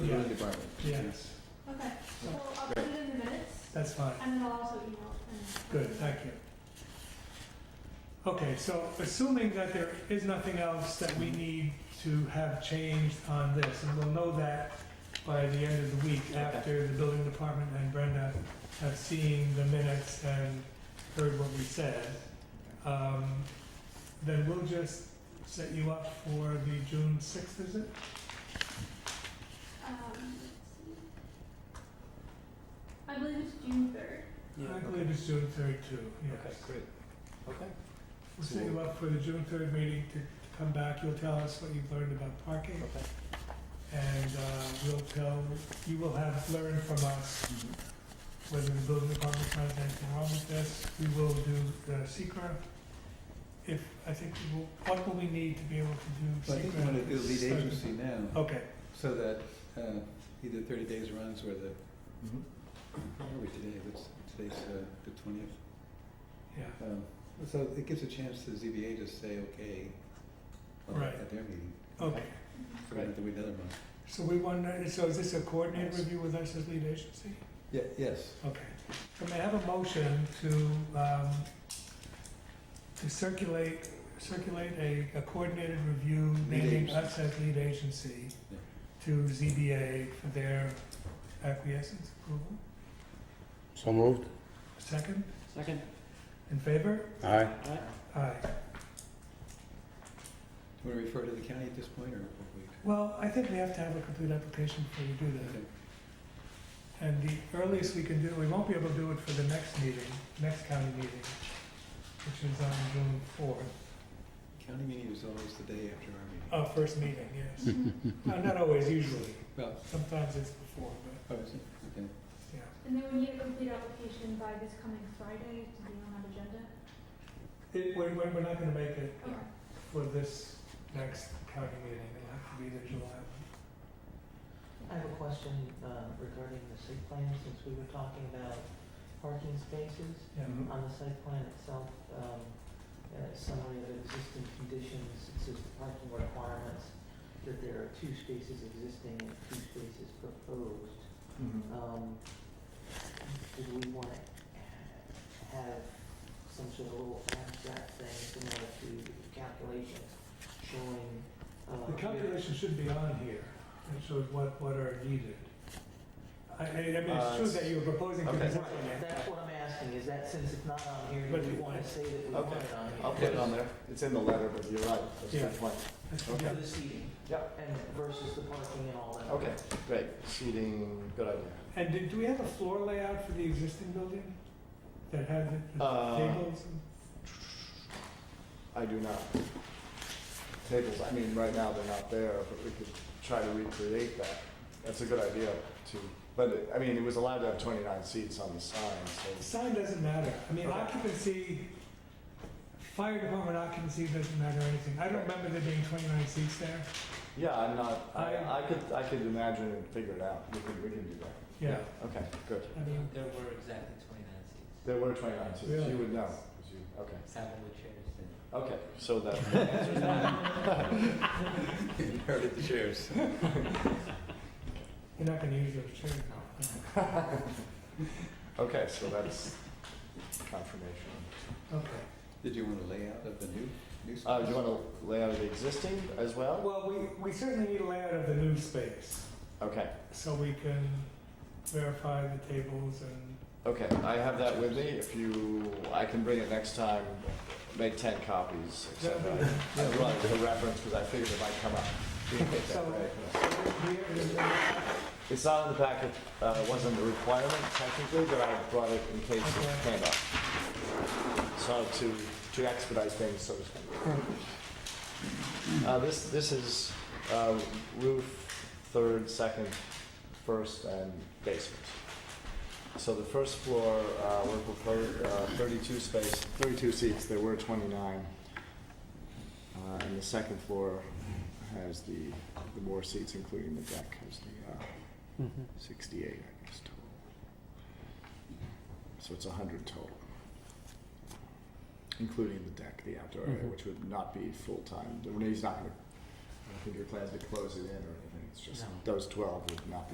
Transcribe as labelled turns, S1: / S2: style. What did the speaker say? S1: building
S2: Yeah.
S1: department.
S2: Yeah.
S1: Yes.
S3: Okay, so I'll put it in the minutes,
S2: That's fine.
S3: and then I'll also email it.
S2: Good, thank you. Okay, so assuming that there is nothing else that we need to have changed on this, and we'll know that by the end of the week after the building department and Brenda have seen the minutes and heard what we said, um, then we'll just set you up for the June sixth, is it?
S3: Um, let's see. I believe it's June third.
S2: I believe it's June third too, yes.
S1: great. Okay.
S2: We'll set you up for the June third meeting to to come back, you'll tell us what you've learned about parking,
S1: Okay.
S2: and uh, we'll tell, you will have learned from us
S1: Mm-hmm.
S2: whether the building department finds anything wrong with this, we will do the secret. If, I think, we will- what will we need to be able to
S1: Well, I
S2: do
S1: think we want
S2: secret?
S1: to lead agency now,
S2: Okay,
S1: so that uh, either thirty days runs or the, where are we today? What's, today's uh, the twentieth.
S2: yeah,
S1: Um, So it gives a chance to ZBA to say, okay, uh,
S2: Right.
S1: at their meeting.
S2: okay,
S1: So we don't have to wait another month.
S2: so we wonder, so is this a coordinated review with us as lead agency?
S1: Yeah, yes.
S2: Okay, so may I have a motion to, um, to circulate, circulate a, a coordinated review
S1: Lead
S2: naming
S1: agency.
S2: us as lead agency
S1: Yeah.
S2: to ZBA for their acquiescence approval?
S4: So moved.
S2: Second,
S5: Second.
S2: in favor?
S4: Aye.
S2: Aye.
S1: Do you want to refer to the county at this point, or what we?
S2: Well, I think we have to have a complete application before we do that.
S1: okay.
S2: And the earliest we can do, we won't be able to do it for the next meeting, next county meeting, which is on June fourth.
S1: County meeting is always the day after our meeting.
S2: Oh, first meeting, yes. No, Not always, usually.
S1: Well,
S2: Sometimes it's before, but
S1: oh, is it? Okay.
S2: yeah.
S3: And then we need a complete application by this coming Friday to be on our agenda.
S2: It, we're, we're we're not gonna make it
S3: Okay.
S2: for this next county meeting, it'll have to be the July one.
S5: I have a question uh, regarding the site plan, since we were talking about parking spaces.
S2: Yeah.
S1: Mhm.
S5: On the site plan itself, um, uh, summary of existing conditions, it says the parking requirements, that there are two spaces existing and two spaces proposed.
S3: Mm-hmm.
S5: Um, did we wanna have some sort of little abstract thing similar to the calculations showing, uh?
S2: The calculation should be on here, it shows what, what are needed. I, I I mean, it's
S5: Uh,
S2: true that you're proposing to
S5: Right,
S2: design
S5: That's
S2: it.
S5: what I'm asking, is that since it's not on here,
S2: But
S5: do we
S2: it-
S5: wanna say that we
S6: Okay,
S5: want it on here?
S6: I'll put it on there. It's in the letter, but you're right. That's a
S2: Yeah.
S6: good point.
S2: Yeah.
S5: For the seating.
S6: Yep.
S5: And versus the parking and all that.
S6: Okay, great. Seating, good idea.
S2: And do, do we have a floor layout for the existing building? That has the the
S6: Uh,
S2: tables and?
S6: I do not. Tables, I mean, right now they're not there, but we could try to recreate that. That's a good idea too. But, it- I mean, it was allowed to have 29 seats on the sign,
S2: The
S6: so.
S2: Sign doesn't matter. I mean,
S6: Okay.
S2: occupancy, fire department occupancy doesn't matter or anything. I don't remember there being 29 seats there.
S6: Yeah, I'm not, I
S2: I-
S6: I could, I could imagine and figure it out. We can, we can do that.
S2: Yeah.
S6: Okay, good.
S2: I mean,
S7: There were exactly twenty-nine seats,
S6: There were 29 seats.
S2: Really?
S6: You would know. 'cause you- Okay,
S7: seven with chairs and
S6: okay. So that answers that.
S1: You heard it, the sheriff's.
S2: you're not going to use those chairs now.
S6: Okay, so that's confirmation.
S2: Okay.
S1: Did you want a layout of the new, new space?
S6: Uh, do you want to lay out the existing as well?
S2: Well, we, we certainly need a layout of the new space
S6: Okay,
S2: so we can verify the tables and,
S6: okay, I have that with me, if you, I can bring it next time, make ten copies, etc.
S2: Yeah, we-
S6: I brought it as a reference, because I figured it might come up. We can get that right.
S2: Here is the-
S6: It's not in the packet, uh, it wasn't a requirement technically, but I brought it in case it
S2: Okay.
S6: came up. So to, to expedite things, so to speak. Uh, this, this is, uh, roof, third, second, first, and basement. So the first floor, uh, we're proposing, uh, thirty-two space, thirty-two seats, there were twenty-nine. Uh, and the second floor has the, the more seats, including the deck, has the, uh, 68, I guess, total. So it's 100 total, including the deck, the outdoor area,
S4: Mhm.
S6: which would not be full time. The Renee's not going to, I don't think your plans to close it in or anything. It's just,
S7: No.
S6: those twelve would not be